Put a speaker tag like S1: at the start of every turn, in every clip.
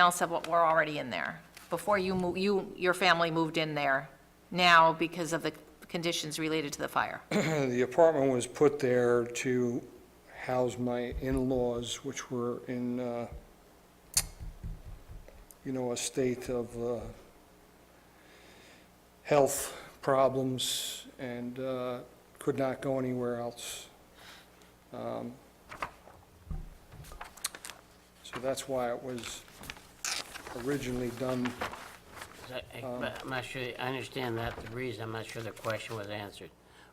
S1: else of what were already in there. Before you, mo- you, your family moved in there now because of the conditions related to the fire.
S2: The apartment was put there to house my in-laws, which were in, uh, you know, a state of uh, health problems and uh, could not go anywhere else. Um, So that's why it was originally done.
S3: I- I- but I'm not sure, I understand that, the reason, I'm not sure the question was answered.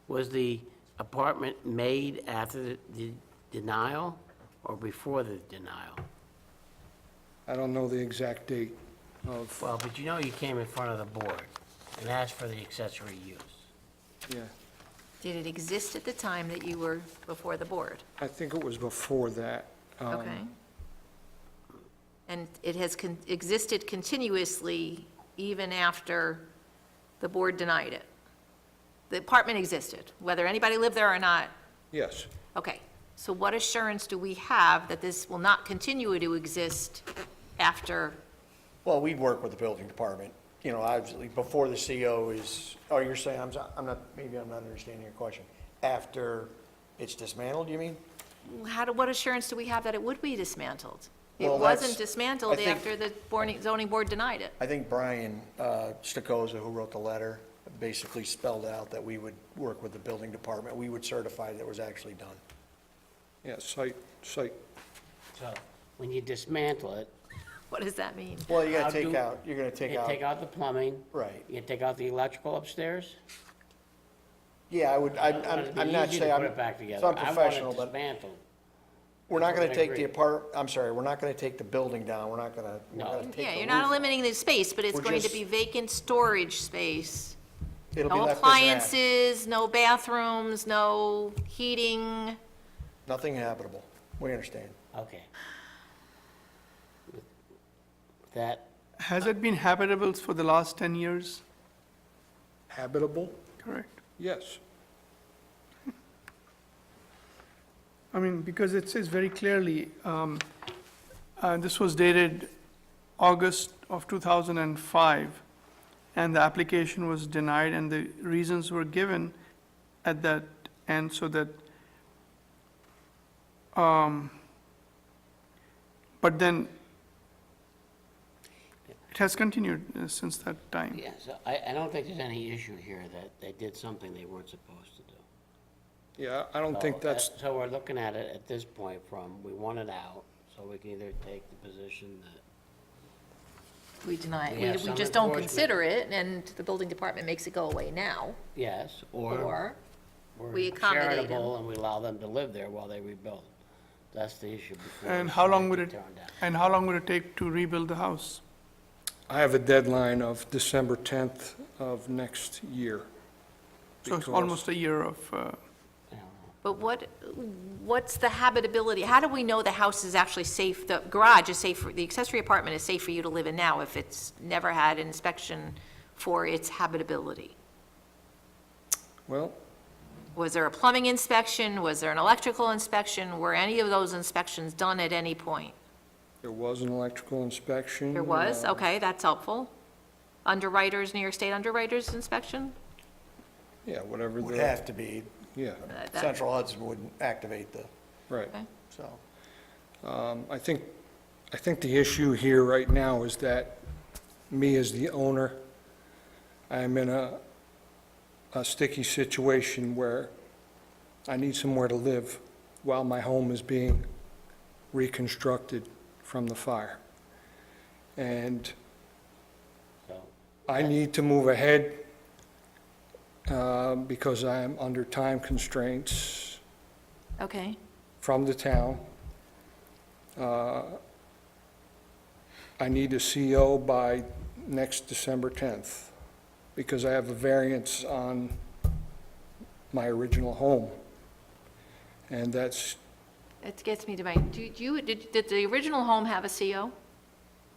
S3: Was the apartment made after the- the denial or before the denial?
S2: I don't know the exact date of,
S3: Well, but you know you came in front of the board and asked for the accessory use.
S2: yeah,
S1: Did it exist at the time that you were before the board?
S2: I think it was before that. um,
S1: Okay. And it has con- existed continuously even after the board denied it? The apartment existed, whether anybody lived there or not,
S2: Yes.
S1: Okay, so what assurance do we have that this will not continue to exist after,
S4: Well, we'd work with the building department, you know, obviously, before the CO is, oh, you're saying, I'm, so- I'm not, maybe I'm not understanding your question. After it's dismantled, you mean?
S1: how do, what assurance do we have that it would be dismantled? It
S4: Well,
S1: wasn't
S4: that's- I
S1: dismantled
S4: think-
S1: after the boarding- zoning board denied it.
S4: I think Brian uh, Stokoza, who wrote the letter, basically spelled out that we would work with the building department. We would certify that it was actually done.
S2: Yeah, site, site,
S3: So when you dismantle it,
S1: What does that mean?
S4: Well, you
S3: How
S4: gotta take
S3: do-
S4: out, you're gonna take
S3: you take
S4: out,
S3: out the plumbing.
S4: Right.
S3: You take out the electrical upstairs.
S4: yeah, I would, I'm,
S3: It'd
S4: I'm
S3: be
S4: I'm not
S3: easy to
S4: saying, I'm
S3: Put it back
S4: it's
S3: together.
S4: unprofessional,
S3: I want
S4: but
S3: it dismantled.
S4: we're not gonna
S3: I
S4: take
S3: agree.
S4: the apart, I'm sorry, we're not gonna take the building down, we're not gonna, we're
S3: No.
S4: not gonna take the
S1: Yeah, you're not
S4: roof off.
S1: eliminating the space, but it's
S4: We're
S1: going to
S4: just-
S1: be vacant storage space.
S4: It'll be
S1: No
S4: left as an attic.
S1: appliances, no bathrooms, no heating.
S4: Nothing habitable, we understand.
S3: Okay. That,
S5: Has it been habitable for the last 10 years?
S2: habitable?
S5: Correct.
S2: Yes.
S5: I mean, because it says very clearly, um, uh, this was dated August of 2005, and the application was denied, and the reasons were given at that end, so that, um, but then, it has continued uh, since that time.
S3: yeah, so I, I don't think there's any issue here that they did something they weren't supposed to do.
S2: Yeah, I don't
S3: So
S2: think
S3: that-
S2: that's,
S3: So we're looking at it at this point from, we want it out, so we can either take the position that,
S1: We deny
S3: We have
S1: it. We
S3: some
S1: just don't
S3: enforcement.
S1: consider it, and the building department makes it go away now,
S3: yes, or
S1: or we accommodate
S3: we're
S1: 'em.
S3: charitable and we allow them to live there while they rebuild. That's the issue before.
S5: And
S3: us,
S5: how
S3: we
S5: long
S3: have
S5: would
S3: to
S5: it,
S3: tear 'em down.
S5: and how long would it take to rebuild the house?
S2: I have a deadline of December 10th of next year.
S5: So it's
S2: because-
S5: almost a year of, uh,
S3: I don't know.
S1: But what, what's the habitability, how do we know the house is actually safe, the garage is safe, for the accessory apartment is safe for you to live in now if it's never had an inspection for its habitability?
S2: Well,
S1: Was there a plumbing inspection, was there an electrical inspection, were any of those inspections done at any point?
S2: there was an electrical inspection.
S1: There was,
S2: uh,
S1: okay, that's helpful. Underwriters, New York State underwriters inspection?
S2: Yeah, whatever
S4: Would
S2: the,
S4: have to be,
S2: yeah,
S1: Uh, that-
S4: Central Hudson wouldn't activate the,
S2: right.
S1: Okay.
S4: so.
S2: Um, I think, I think the issue here right now is that me as the owner, I'm in a, a sticky situation where I need somewhere to live while my home is being reconstructed from the fire. And
S3: So,
S2: I need to move ahead uh, because I am under time constraints
S1: Okay,
S2: from the town. Uh, I need a CO by next December 10th, because I have a variance on my original home. And that's,
S1: that gets me to my, do you, did, did the original home have a CO?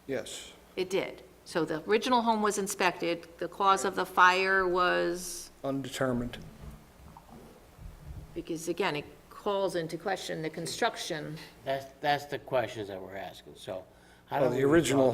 S2: yes,
S1: It did. So the original home was inspected, the cause of the fire was,
S2: undetermined.
S1: because again, it calls into question the construction.
S3: that's, that's the questions that we're asking, so. how do
S2: Well, the
S3: we resolve
S2: original